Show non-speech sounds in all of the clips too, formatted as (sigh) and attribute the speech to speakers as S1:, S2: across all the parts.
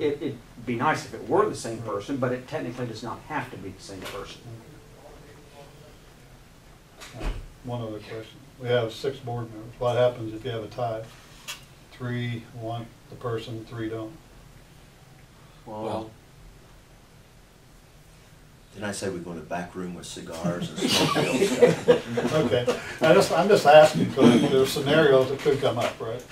S1: It, it'd be nice if it were the same person, but it technically does not have to be the same person.
S2: One other question. We have six board members. What happens if you have a tie? Three want the person, three don't.
S3: Well, Did I say we go in a back room with cigars and smoke
S2: (laughs)
S3: bills?
S2: Okay, I just, I'm just asking, because there's scenarios that could come up, right?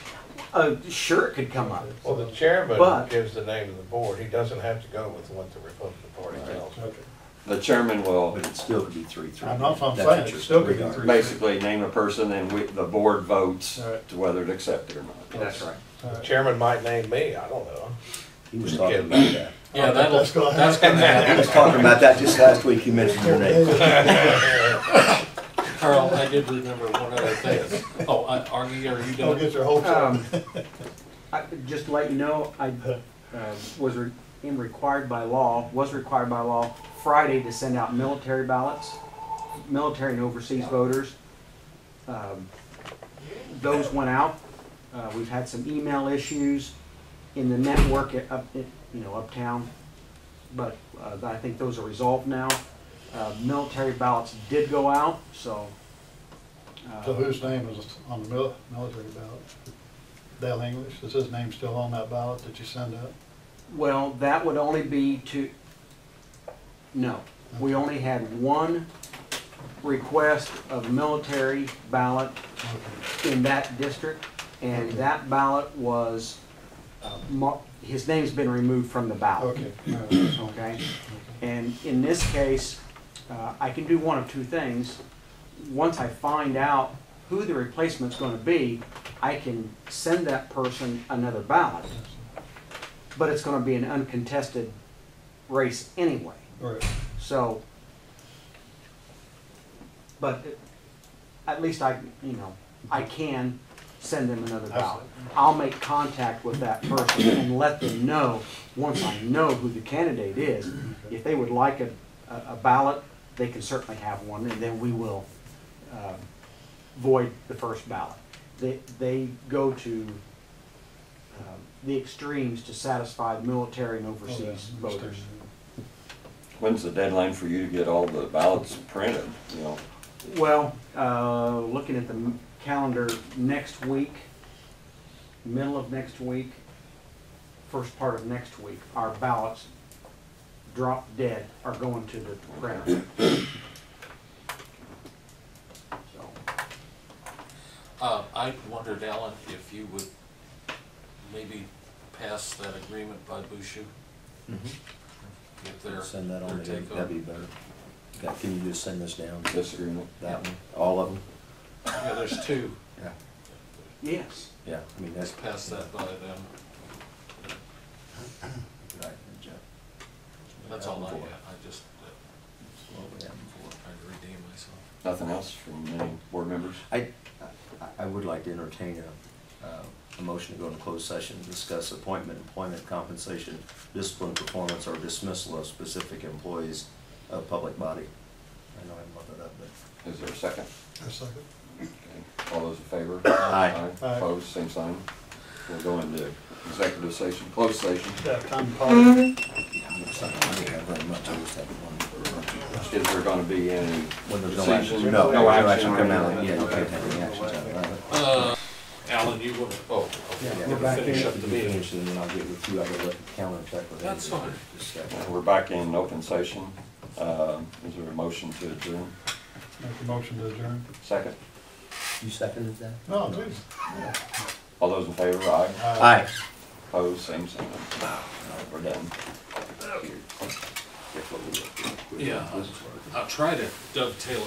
S1: Uh, sure, it could come up.
S4: Well, the
S1: But-
S4: chairman gives the name of the board, he doesn't have to go with what the Republican Party tells him.
S2: Okay.
S5: The chairman will
S3: But it still could be three, three.
S2: I know if I'm
S3: That's what
S2: saying, it
S3: you're-
S2: still could be
S3: we are.
S2: three.
S5: basically name a person and we, the board votes
S2: All right.
S5: to whether to accept it or not.
S1: That's right.
S2: All
S4: The
S2: right.
S4: chairman might name me, I don't know.
S3: He was talking about that.
S2: Yeah, that'll, that's gonna
S3: He was talking about that just last week, he mentioned your name.
S6: Carl, I did remember one other thing. Oh, I- Augie, are you
S2: Don't
S6: done?
S2: get your hopes up.
S1: Um, (laughs) I, just to let you know, I, uh, was re- am required by law, was required by law Friday to send out military ballots, military and overseas voters. Um, Those went out. Uh, we've had some email issues in the network at up, at, you know, uptown. But, uh, I think those are resolved now. Uh, military ballots did go out, so. uh,
S2: So whose name was on the mil- military ballot? Dale English, is his name still on that ballot that you send out?
S1: Well, that would only be to, no, we only had one request of military ballot
S2: Okay.
S1: in that district, and that ballot was, uh, mar- his name's been removed from the ballot.
S2: Okay, all right.
S1: uh, Okay? And in this case, uh, I can do one of two things. Once I find out who the replacement's gonna be, I can send that person another ballot but it's going to be an uncontested race anyway.
S2: all right.
S1: So, but it- at least I, you know, I can send them another ballot. I'll make contact with that person and let them know, once I know who the candidate is, if they would like a, a a ballot, they can certainly have one, and then we will um, void the first ballot. They, they go to um, the extremes to satisfy military and
S2: Oh, yeah,
S1: overseas voters.
S2: understand.
S5: When's the deadline for you to get all the ballots printed, you know?
S1: Well, uh, looking at the m- calendar next week, middle of next week, first part of next week, our ballots drop dead are going to the printer. (coughs) So,
S6: Uh, I wondered, Alan, if you would maybe pass that agreement by Bushu? If they're,
S3: Mm-hmm. Send that
S6: they're
S3: on, to him.
S6: take
S3: that'd be
S6: over.
S3: better. Okay, Can you just send this down,
S5: Disagreement?
S3: that one, all of them?
S6: Yeah, there's two.
S3: Yeah.
S1: Yes,
S3: Yeah, I mean, that's.
S6: Just pass that by them.
S3: Right, Jeff.
S6: That's all I
S3: Before.
S6: had. I just, uh,
S3: That's what we have before.
S6: before I redeem myself.
S5: Nothing else from any board members?
S3: I, I- I would like to entertain a, uh, a motion to go into closed session to discuss appointment, employment, compensation, discipline, performance, or dismissal of specific employees of public body. I know I muffled up, but.
S5: Is there a second?
S2: A second.
S5: Okay. All those in favor?
S3: Aye.
S2: Aye.
S5: Opposed, same sign. We'll go into executive session, closed session.
S2: Yeah, Tom Pollard.
S3: Looks like I think I very much understand one.
S5: Is there gonna be any?
S3: When there's no action.
S5: Decision.
S3: No,
S5: No action.
S3: Come out, yeah, you can't have any actions out of that.
S6: Uh, Alan, you will, oh, okay.
S3: Yeah,
S1: we're back
S6: Finish
S1: in.
S6: up the meeting.
S3: Finish, and then I'll get with you, I gotta look at the calendar and check with.
S6: That's
S3: Andy.
S6: fine.
S3: Just a
S5: Uh,
S3: second.
S5: We're back in open session. Um, Is there a motion to adjourn?
S2: Make the motion to adjourn.
S5: Second?
S3: You seconded that?
S2: No, please.
S5: All those in favor, aye.
S3: Aye.
S5: Opposed, same sign. We're done.
S6: Yeah, I'll try to dovetail